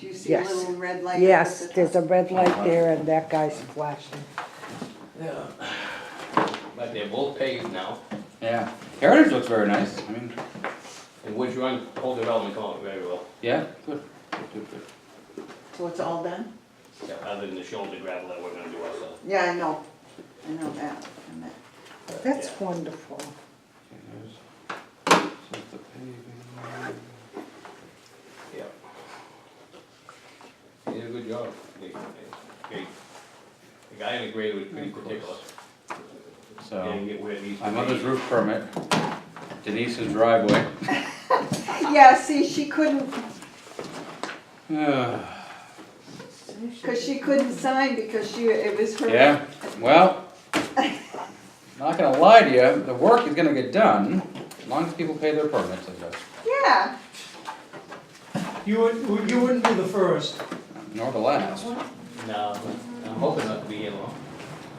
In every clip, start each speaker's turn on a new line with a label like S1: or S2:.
S1: Do you see a
S2: Yes.
S1: little red light? up at
S2: Yes,
S1: the
S2: there's a
S1: top?
S2: red light there and that guy's flashing.
S3: Yeah. But they're both paved now,
S4: Yeah, Heritage looks very nice, I mean,
S3: and Woods Run, whole development going very well,
S4: yeah, good, good, good.
S1: So it's all done?
S3: Yeah, other than the shoulder gravel that we're gonna do ourselves.
S1: Yeah, I know, I know that, I know.
S3: But,
S2: That's
S3: yeah.
S2: wonderful.
S4: Okay, there's- so it's the paving.
S3: Yeah. He did a good job. They- they- they- The guy in the grade was pretty particular. Didn't
S4: So,
S3: get where these.
S4: my mother's roof permit, Denise's driveway.
S1: Yeah, see, she couldn't,
S4: Yeah,
S1: cause she couldn't sign because she, it was her.
S4: well, not gonna lie to you, the work is gonna get done, as long as people pay their permits, I guess,
S1: Yeah,
S5: You would, you wouldn't be the first.
S4: nor the last.
S3: No, I'm hoping not to be here long.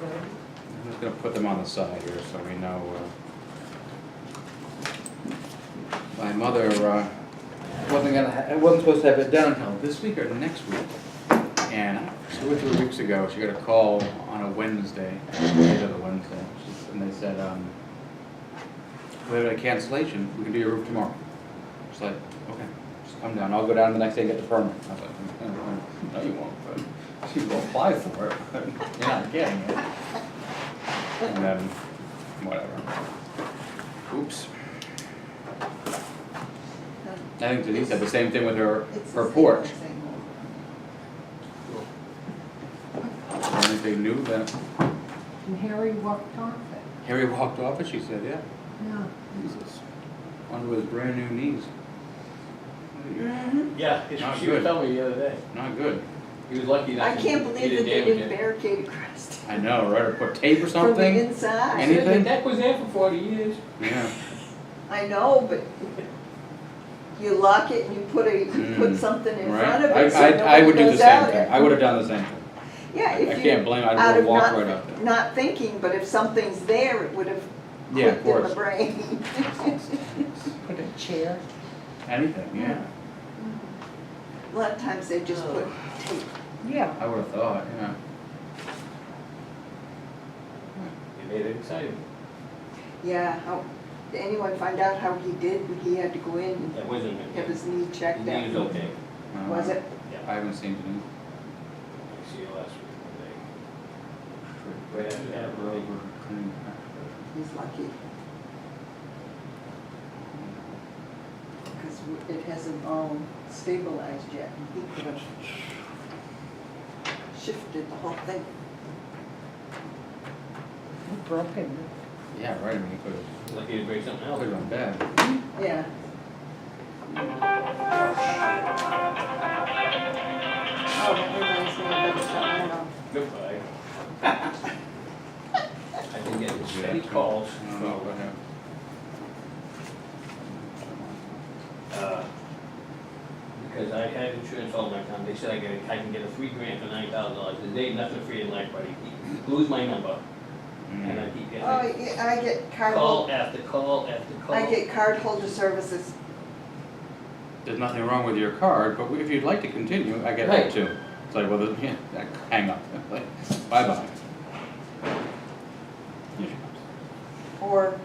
S4: I'm just gonna put them on the side here so we know, uh, my mother, uh, wasn't gonna, ha- wasn't supposed to have it done until this week or next week. And two or three weeks ago, she got a call on a Wednesday, later the Wednesday, she- and they said, um, we have a cancellation, we can do your roof tomorrow. She's like, okay, just come down, I'll go down the next day and get the permit. I was like, "Mm, no, you won't, but she will apply for it, but you're not getting it. And then, whatever. Oops. I think Denise said the same thing with her,
S1: it's the
S4: her
S1: same
S4: porch.
S1: thing.
S4: And if they knew that
S6: And Harry walked off it.
S4: Harry walked off it, she said, yeah,
S6: Yeah.
S4: Jesus. Onto his brand new knees.
S1: Mm-hmm.
S3: Yeah,
S4: Not
S3: she was
S4: good.
S3: telling me the other day.
S4: Not good.
S3: He was lucky
S1: I
S3: that he
S1: can't
S3: didn't
S1: believe that they
S3: damage
S1: didn't
S3: it.
S1: barricade across
S4: I know, right, or put tape or
S1: from the
S4: something?
S1: inside.
S4: Any-
S3: Said The
S4: Anything?
S3: deck was there for forty years.
S4: Yeah,
S1: I know, but you lock it and you put a, you put
S4: Mm,
S1: something in front of
S4: right?
S1: it so
S4: I, I, I would
S1: nobody
S4: do the
S1: goes
S4: same
S1: out
S4: thing,
S1: it.
S4: I would have done the same thing.
S1: Yeah,
S4: I- I
S1: if
S4: can't
S1: you,
S4: blame,
S1: out
S4: I'd
S1: of
S4: have walked right up
S1: not,
S4: there.
S1: not thinking, but if something's there, it would have
S4: Yeah, of
S1: clicked in the
S4: course.
S1: brain.
S2: Put a chair.
S4: Anything, yeah,
S1: A lot of times they just put tape.
S2: Yeah,
S4: I would have thought, yeah.
S3: It made it exciting.
S1: Yeah, how, did anyone find out how he did? He had to go in and
S3: That wasn't.
S1: have his knee checked
S3: He
S1: out.
S3: was okay.
S4: Uh,
S1: Was it?
S4: I haven't seen Denise.
S3: I see you last week.
S4: Right
S3: Yeah, yeah, right.
S1: He's lucky. Because it hasn't all stabilized yet. and He could have shifted the whole thing.
S2: broken.
S4: Yeah, right, I mean, it could have,
S3: Lucky to break something else.
S4: could have gone bad.
S1: Yeah. Oh, that reminds me of that, I don't know.
S3: Goodbye. I think it was steady calls
S4: I don't know
S3: from,
S4: what happened.
S3: uh, because I had insurance all my time, they said I get, I can get a free grant for nine thousand dollars, there's ain't nothing free in life, buddy. Lose my number, and
S4: Mm.
S3: I keep getting
S1: Oh, yeah, I get card,
S3: call
S1: hol-
S3: after call after call.
S1: I get card holder services.
S4: There's nothing wrong with your card, but if you'd like to continue, I get
S3: Right.
S4: that too. It's like, well, then, yeah, that- hang up, like, bye-bye.
S1: Or,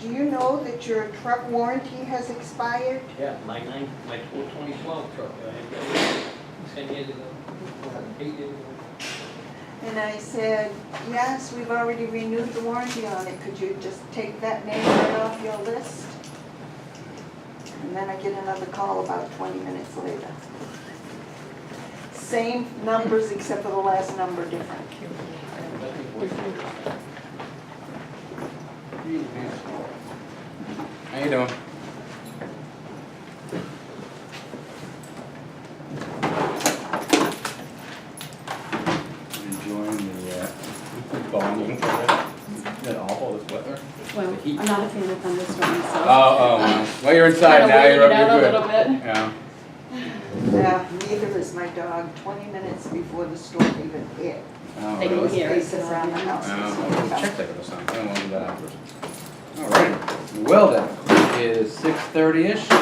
S1: do you know that your truck warranty has expired?
S3: Yeah, my nine, my twenty twelve truck, I had that ten years ago, eight years ago.
S1: And I said, yes, we've already renewed the warranty on it, could you just take that name right off your list? And then I get another call about twenty minutes later. Same numbers except for the last number different.
S3: Nothing for you.
S4: How you doing? Enjoying the, uh, bonding for that, isn't it awful, this weather?
S7: Well,
S4: The heat.
S7: I'm not a fan of thunderstorms,
S4: Oh,
S7: so.
S4: oh, well. well, you're inside now, you're,
S7: Kinda
S4: you're
S7: waited
S4: good.
S7: it out a little bit.
S4: Yeah,
S1: Yeah, Uh, neither is my dog, twenty minutes before the storm even hit.
S4: oh,
S7: They can
S4: really?
S7: hear it.
S1: Faces around the house.
S4: Um, check that or something, I don't want to do that afterwards. All right, well then, it is six thirty-ish.